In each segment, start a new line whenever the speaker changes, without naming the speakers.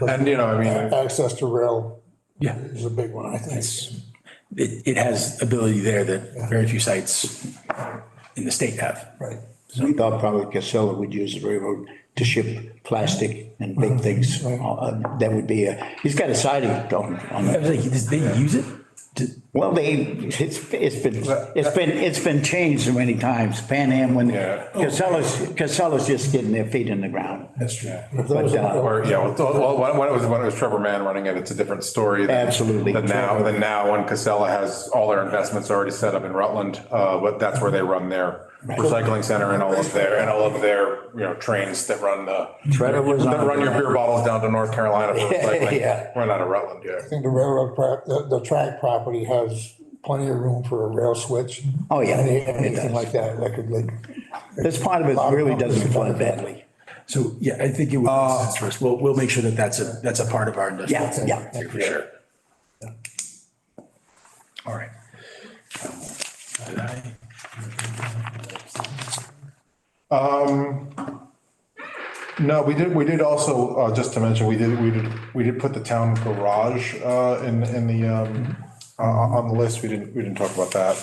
And, you know, I mean,
Access to rail
Yeah,
is a big one, I think.
it, it has ability there that very few sites in the state have.
Right.
We thought probably Casella would use the railroad to ship plastic and big things. Uh, That would be a, he's got a siding on, on
I
it.
was like, does they use it? Do-
Well, they, it's, it's been, it's been, it's been changed so many times. Pan Am when
Yeah.
Casella's, Casella's just getting their feet in the ground.
That's true.
But, uh,
or, yeah, well, well, when when it was, when it was Trevor Mann running it, it's a different story. than-
Absolutely.
Than now, than now, when Casella has all their investments already set up in Rutland, uh, but that's where they run their recycling center and all of their, and all of their, you know, trains that run the,
Trevor was
that
on-
run your beer bottles down to North Carolina for
Yeah.
recycling. Run out of Rutland, yeah.
I think the railroad, pro- the, the track property has plenty of room for a rail switch.
Oh, yeah,
Any-
it
Anything
does.
like that, that could, like,
This part of it really doesn't flood badly.
So, yeah, I think it would make sense for us. We'll, we'll make sure that that's a, that's a part of our industrial.
Yeah, yeah.
For sure. All right. Did I-
No, we did, we did also, uh, just to mention, we did, we did, we did put the town garage, uh, in, in the, um, uh, on the list. We didn't, we didn't talk about that.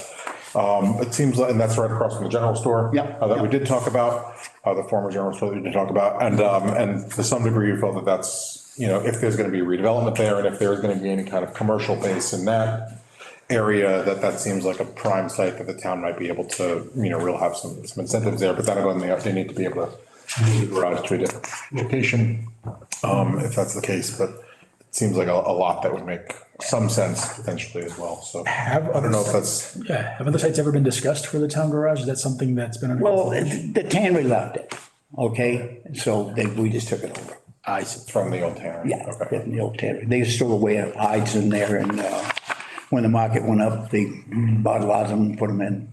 Um, it seems like, and that's right across from the general store.
Yeah.
Uh, that we did talk about, uh, the former general store that we did talk about. And, um, and to some degree, we felt that that's, you know, if there's gonna be redevelopment there and if there's gonna be any kind of commercial base in that area, that that seems like a prime site that the town might be able to, you know, really have some, some incentives there, but that'll go in there. They need to be able to move the garage to a different location, um, if that's the case, but it seems like a, a lot that would make some sense potentially as well, so. I don't know if that's,
Yeah, have other sites ever been discussed for the town garage? Is that something that's been? under-
Well, the tannery loved it, okay? So they, we just took it over.
I see.
from the old town.
Yeah,
Okay.
in the old tannery. They used to wear hides in there and uh, when the market went up, they bought a lot of them and put them in.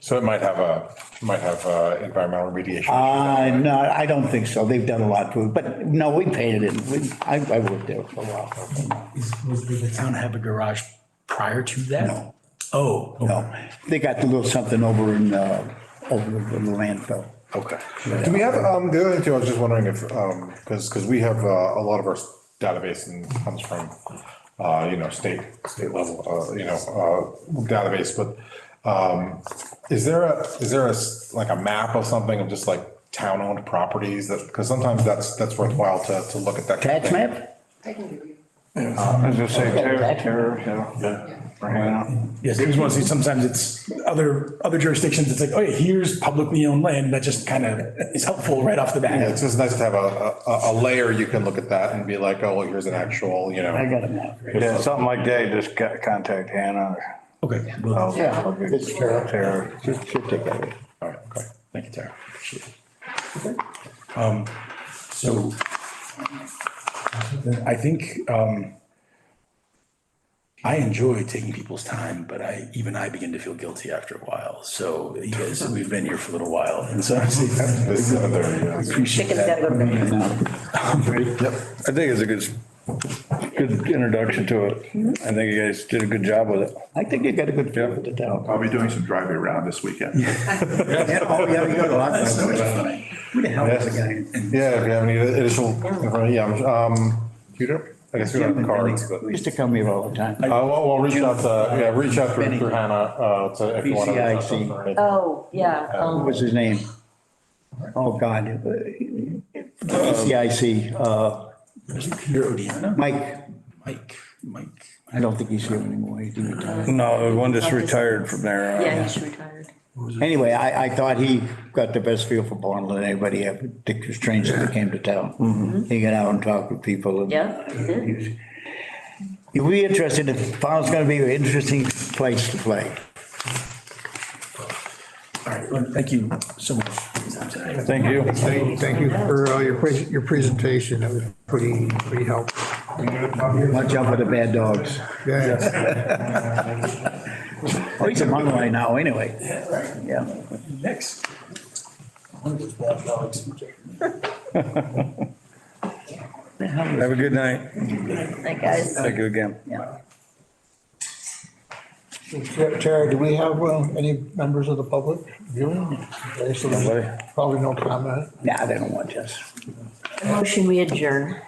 So it might have a, might have uh environmental remediation.
Uh, no, I don't think so. They've done a lot to it, but no, we painted it. We- I, I worked there for a while.
Is- Was, did the town have a garage prior to that?
No.
Oh. okay.
No, they got a little something over in, uh, over in the landfill.
Okay. Do we have, um, the other thing too, I was just wondering if, um, because, because we have, uh, a lot of our database and comes from, uh, you know, state, state level, uh, you know, uh, database, but, um, is there a, is there a, s- like a map of something of just like town-owned properties that, because sometimes that's, that's worthwhile to, to look at that. kind of
Tax
thing.
map?
I can give you.
As I say,
Okay.
terror, yeah. Yeah.
Yes, I just want to see, sometimes it's other, other jurisdictions, it's like, oh yeah, here's publicly owned land, that just kind of is helpful right off the
Yeah,
bat.
It's just nice to have a, a, a layer you can look at that and be like, oh, well, here's an actual, you know.
I got a map.
Yeah, something like that, just co- contact Hannah.
Okay, well,
Yeah. It's terrible.
Terror.
Should- should take that away.
Oh.
all right, okay, thank you, Tara. Appreciate it. Um, So I think um, I enjoy taking people's time, but I, even I begin to feel guilty after a while. So you guys, we've been here for a little while, and so I
This is another, yeah.
appreciate Um,
Chicken's gotta go to bed.
I think it's a good, good introduction to it. I think you guys did a good job with it.
I think you got a good feel with the town.
I'll be doing some driving around this weekend.
Oh, yeah, you got a lot. Who the hell is the guy?
Yeah, if you have any additional, yeah, um, Peter, I guess we don't have cards, but.
Who used to come here all the time?
Uh, well, we'll reach out to, yeah, reach out through through Hannah, uh, to if you want to.
BCIC.
Oh, yeah.
What
um,
was his name? Oh, God. CIC, uh,
Peter Odiana,
Mike,
Mike, Mike.
I don't think he's here anymore. He didn't retire.
No, the one that's retired from there. uh,
Yeah, he's retired.
Anyway, I, I thought he got the best feel for Bonneville than anybody ever, Dick Strange that came to town. He got out and talked with people. and-
Yeah, he did.
You'll be interested, if Bonneville's gonna be an interesting place to play.
All right, well, thank you so much. Thank
Thank you.
thank you for uh, your, pres- your presentation. That was pretty, pretty helpful.
Watch out for the bad dogs.
Yeah.
Oh, he's a Monterey now, anyway. Yeah.
Next.
Have a good night.
Like, guys.
Thank you again.
Tara, do we have uh, any members of the public viewing? Okay, so there's Probably no comment.
Nah, they don't want us.
Motion we adjourn.